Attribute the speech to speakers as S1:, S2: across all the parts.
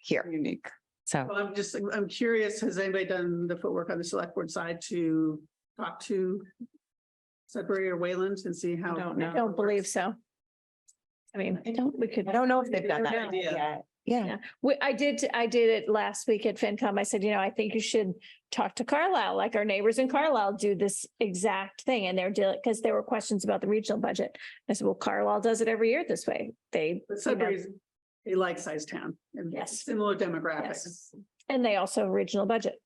S1: here.
S2: unique.
S1: So
S3: Well, I'm just, I'm curious, has anybody done the footwork on the select board side to talk to Sudbury or Wayland and see how?
S2: I don't know.
S4: Oh, I don't believe so. I mean,
S3: I don't-
S4: we could.
S1: I don't know if they've done
S4: I
S1: that
S4: don't know.
S1: yet. Yeah,
S4: Yeah. We, I did, I did it last week at FinCom. I said, you know, I think you should talk to Carlisle, like our neighbors in Carlisle do this exact thing and they're dealing, because there were questions about the regional budget. I said, well, Carlisle does it every year this way. They,
S3: But Sudbury's a like-sized town and
S4: Yes.
S3: similar demographics,
S4: and they also have regional budget.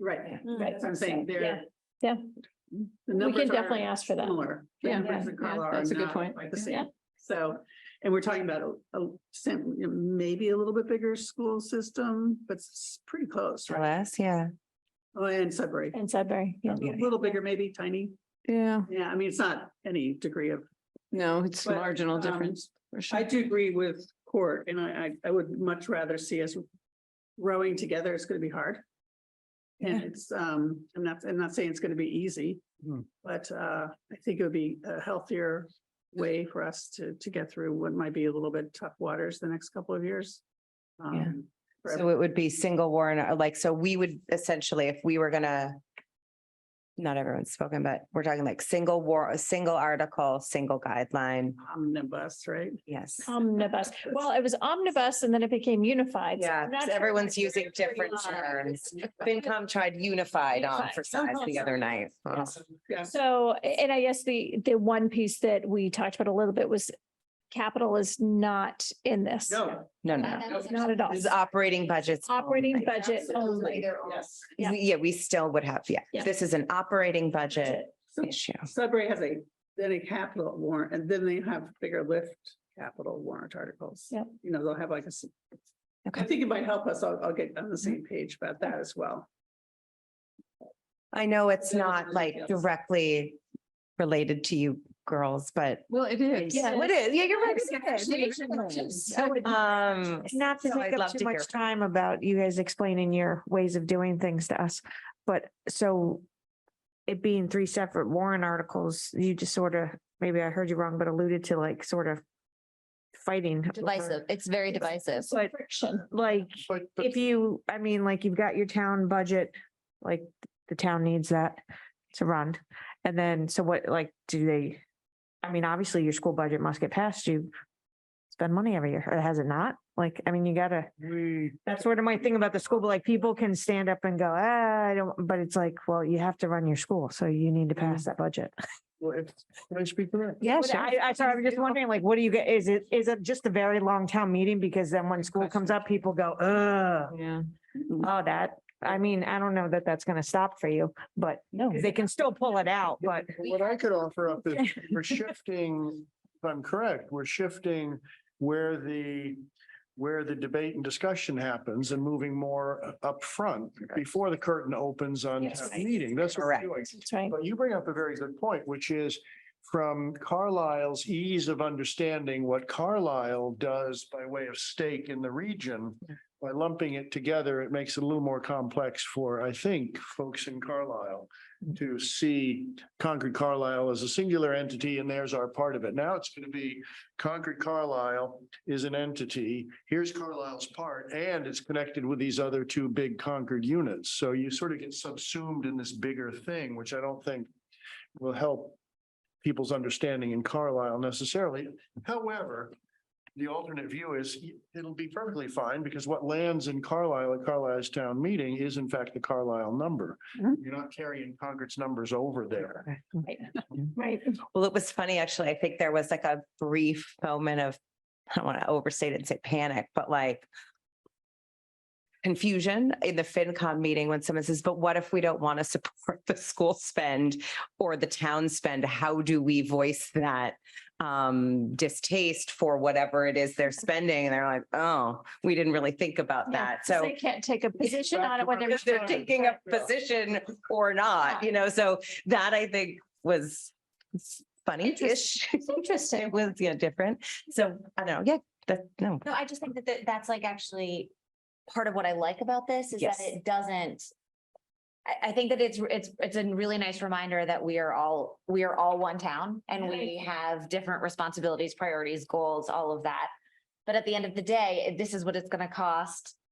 S3: right?
S4: Right.
S3: Hmm, That's what I'm saying,
S4: Yeah.
S3: they're.
S4: Yeah.
S3: The
S4: We
S3: numbers
S4: can
S3: are
S4: definitely ask for that.
S3: Similar. The
S2: Yeah.
S3: numbers in
S2: Yeah,
S3: Carlisle are
S2: that's a good
S3: not
S2: point.
S3: quite the
S2: Yeah.
S3: same. So, and we're talking about a, a sim- you know, maybe a little bit bigger school system, but it's pretty close, right?
S1: Dallas, yeah.
S3: Oh, and Sudbury,
S4: And Sudbury.
S3: a
S4: yeah.
S3: little bigger, maybe tiny.
S2: Yeah,
S3: Yeah, I mean, it's not any degree of
S2: no, it's
S3: But,
S2: marginal
S3: um,
S2: difference. for sure.
S3: I do agree with court and I, I, I would much rather see us rowing together. It's gonna be hard. And
S2: Yeah.
S3: it's, um, I'm not, I'm not saying it's gonna be easy,
S5: Hmm.
S3: but, uh, I think it would be a healthier way for us to, to get through what might be a little bit tough waters the next couple of years. Um, for
S1: So it would be single warrant, or like, so we would essentially, if we were gonna. Not everyone's spoken, but we're talking like single war, a single article, single guideline,
S3: Omnibus, right?
S1: yes.
S4: Oh, Omnibus. Well, it was omnibus and then it became unified. so
S1: Yeah,
S4: I'm not
S1: 'cause
S4: sure
S1: everyone's
S4: where
S1: using
S4: we
S1: different
S4: are.
S1: terms. FinCom tried unified on for size the other night.
S3: Yeah.
S4: So, and I guess the, the one piece that we talked about a little bit was capital is not in this. Uh,
S1: No,
S3: No.
S1: no,
S4: Not at all.
S1: this is operating budgets.
S4: Operating
S1: only.
S4: budget only.
S3: Yes.
S4: yeah.
S1: We- Yeah, we still would have, yeah,
S4: Yeah.
S1: this is an operating budget
S3: So
S1: issue.
S3: Sudbury has a, then a capital warrant, and then they have bigger lift capital warrant articles.
S4: Yep.
S3: You know, they'll have like a. s-
S1: Okay.
S3: I think it might help us. I'll, I'll get on the same page about that as well.
S1: I know it's
S3: Those are
S1: not
S3: the
S1: like
S3: details.
S1: directly related to you girls, but
S2: Well, it is.
S1: Yeah, what is, yeah, you're right. Um,
S6: Not to
S1: So I'd
S6: take
S1: love
S6: up
S1: to
S6: too
S1: hear
S6: much time about you guys explaining your ways of doing things to us, but so it being three separate warrant articles, you just sort of, maybe I heard you wrong, but alluded to like sort of fighting. over-
S7: Divisive. It's very divisive.
S4: But friction.
S6: Like, if you, I mean, like you've got your town budget, like the town needs that to run. And then, so what, like, do they, I mean, obviously your school budget must get passed. You spend money every year, or has it not? Like, I mean, you gotta.
S5: We,
S6: That's sort of my thing about the school, but like people can stand up and go, ah, I don't, but it's like, well, you have to run your school, so you need to pass that budget.
S5: well, if, can I speak to that?
S6: Yes. I, I, sorry, I'm just wondering, like, what do you get? Is it, is it just a very long town meeting? Because then when school comes up, people go, ugh,
S2: Yeah.
S6: oh, that. I mean, I don't know that that's gonna stop for you, but
S1: No.
S6: they can still pull it out, but
S5: What I could offer up is we're shifting, if I'm correct, we're shifting where the, where the debate and discussion happens and moving more up front before the curtain opens on
S4: Yes.
S5: town meeting. That's what we're
S1: Correct.
S5: doing.
S4: That's right.
S5: But you bring up a very good point, which is from Carlisle's ease of understanding what Carlisle does by way of stake in the region. By lumping it together, it makes it a little more complex for, I think, folks in Carlisle to see Concord Carlisle as a singular entity and there's our part of it. Now it's going to be Concord Carlisle is an entity. Here's Carlisle's part, and it's connected with these other two big Concord units. So you sort of get subsumed in this bigger thing, which I don't think will help people's understanding in Carlisle necessarily. However, the alternate view is it'll be perfectly fine because what lands in Carlisle at Carlisle's town meeting is in fact the Carlisle number.
S3: Mhm.
S5: You're not carrying Concord's numbers over there.
S4: Right.
S1: Well, it was funny, actually. I think there was like a brief moment of, I don't want to overstate it and say panic, but like confusion in the FinCom meeting when someone says, but what if we don't want to support the school spend or the town spend? How do we voice that um distaste for whatever it is they're spending? And they're like, oh, we didn't really think about
S4: Yeah,
S1: that.
S4: 'cause
S1: So
S4: They can't take a position on it when they're.
S1: because they're taking a position uh, or not, you know, so that I think was funny-ish.
S7: It's
S1: It
S7: interesting.
S1: was, yeah, different. So I don't know, yeah, that, no,
S7: No, I just think that th- that's like actually part of what I like about this is that
S1: Yes.
S7: it doesn't. I, I think that it's, it's, it's a really nice reminder that we are all, we are all one town and we have different responsibilities, priorities, goals, all of that.
S6: But at the end of the day, this is what it's gonna cost